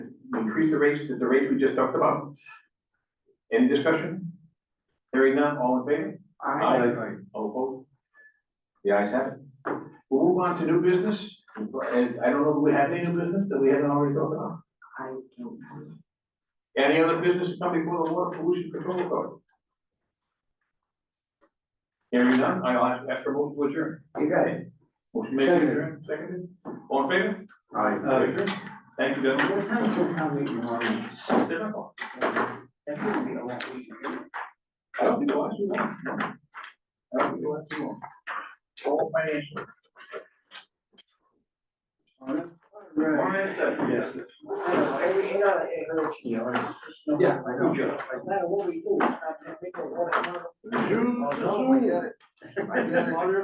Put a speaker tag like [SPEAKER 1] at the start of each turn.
[SPEAKER 1] increase the rates to the rates we just talked about? Any discussion? Hearing none, all in favor? Aye. All opposed? The ayes have it. We'll move on to new business. As, I don't know if we have any new business that we haven't already talked about.
[SPEAKER 2] I don't know.
[SPEAKER 1] Any other business come before the Water Pollution Control Authority? Hearing none, I'll ask ask for a motion to adjourn.
[SPEAKER 2] You got it.
[SPEAKER 1] Motion made to adjourn, seconded. All in favor? Aye. Thank you, gentlemen.
[SPEAKER 2] What time is it now, meeting morning?
[SPEAKER 1] Seven o'clock.
[SPEAKER 2] That wouldn't be a lot easier.
[SPEAKER 1] I don't think it'll last too long. I don't think it'll last too long. All financial.
[SPEAKER 2] Right.
[SPEAKER 1] One and seven, yes.
[SPEAKER 2] I know, every, you know, it hurts you. you know, it's just no-
[SPEAKER 1] Yeah, I know.
[SPEAKER 2] No matter what we do, I can't think of what.
[SPEAKER 1] Zoom,
[SPEAKER 2] I did it.